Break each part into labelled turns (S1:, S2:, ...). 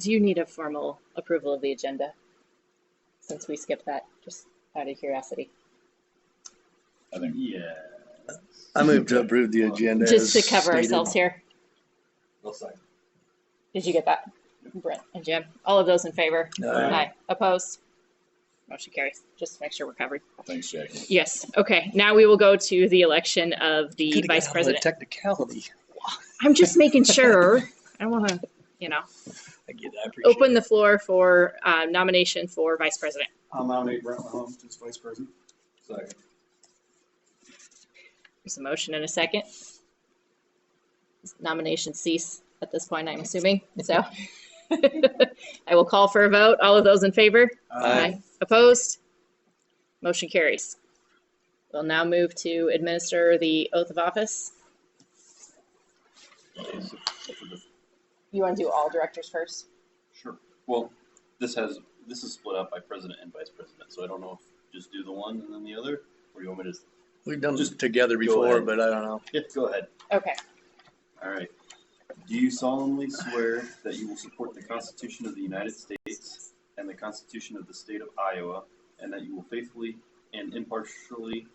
S1: Do you need a formal approval of the agenda since we skipped that just out of curiosity?
S2: I think.
S3: Yeah.
S4: I move to approve the agenda.
S1: Just to
S4: as
S1: cover
S4: stated.
S1: ourselves here. Did you get that? Brent and Jim, all of those in favor?
S4: Uh,
S1: Aye. Opposed? Motion carries. Just to make sure we're covered.
S2: Thanks, Jackie.
S1: Yes. Okay. Now we will go to the election of
S4: could've
S1: the
S4: got
S1: vice
S4: all the
S1: president.
S4: Technicality.
S1: I'm just making sure. I want to, you know,
S4: I get it. I appreciate
S1: open the floor for uh, nomination for vice president.
S3: I'll nominate Brent Mahomes as vice president. Second.
S1: There's a motion and a second. Nominations cease at this point, I'm assuming. So I will call for a vote. All of those in favor?
S4: Aye.
S1: Opposed? Motion carries. We'll now move to administer the oath of office. You want to do all directors first?
S5: Sure. Well, this has, this is split up by president and vice president, so I don't know if just do the one and then the other, or you want me to just,
S4: We've done this
S5: Just
S4: together
S5: go
S4: before,
S5: ahead.
S4: but I don't know.
S5: yeah, go ahead.
S1: Okay.
S5: All right. Do you solemnly swear that you will support the Constitution of the United States and the Constitution of the State of Iowa, and that you will faithfully and impartially,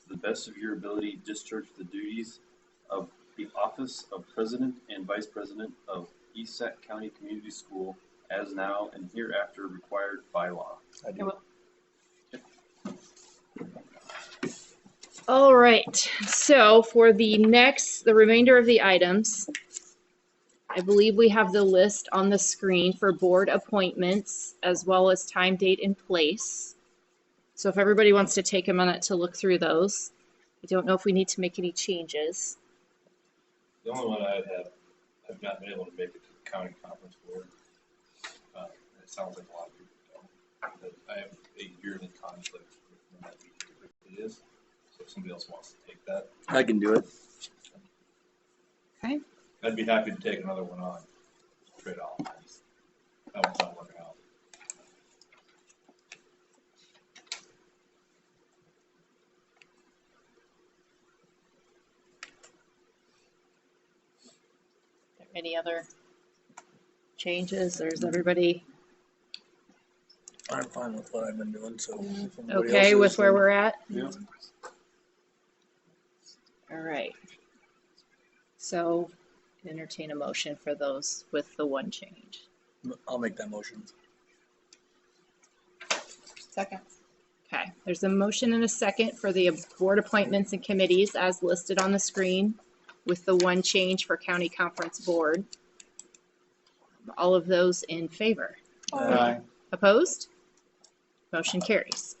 S5: to the best of your ability, discharge the duties of the office of President and Vice President of E East Sac County Community School as now and hereafter required by law?
S4: I do.
S1: All right. So for the next, the remainder of the items, I believe we have the list on the screen for board appointments as well as time, date, and place. So if everybody wants to take a minute to look through those, I don't know if we need to make any changes.
S3: The only one I have, I've not been able to make it to the county conference board. Uh, It sounds like a lot of people don't. But I have a yearly conflict with when that meeting typically is. So if somebody else wants to take that,
S4: I can do it.
S3: I'd be happy to take another one on. Trade off. That one's not working out.
S1: Any other changes or is everybody
S4: I'm fine with what I've been doing, so. if anybody
S1: okay
S4: else
S1: with
S4: is,
S1: where
S4: then-
S1: we're at?
S5: Yeah.
S1: All right. So entertain a motion for those with the one change.
S4: I'll make that motion.
S1: Second. Okay, there's a motion and a second for the board appointments and committees as listed on the screen with the one change for county conference board. All of those in favor?
S4: Uh,
S1: Opposed? Motion carries.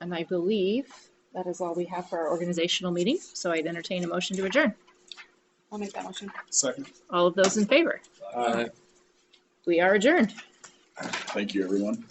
S1: And I believe that is all we have for our organizational meeting, so I'd entertain a motion to adjourn.
S6: I'll make that motion.
S3: Second.
S1: All
S4: Uh,
S1: of those in favor? We are adjourned.
S2: Thank you, everyone.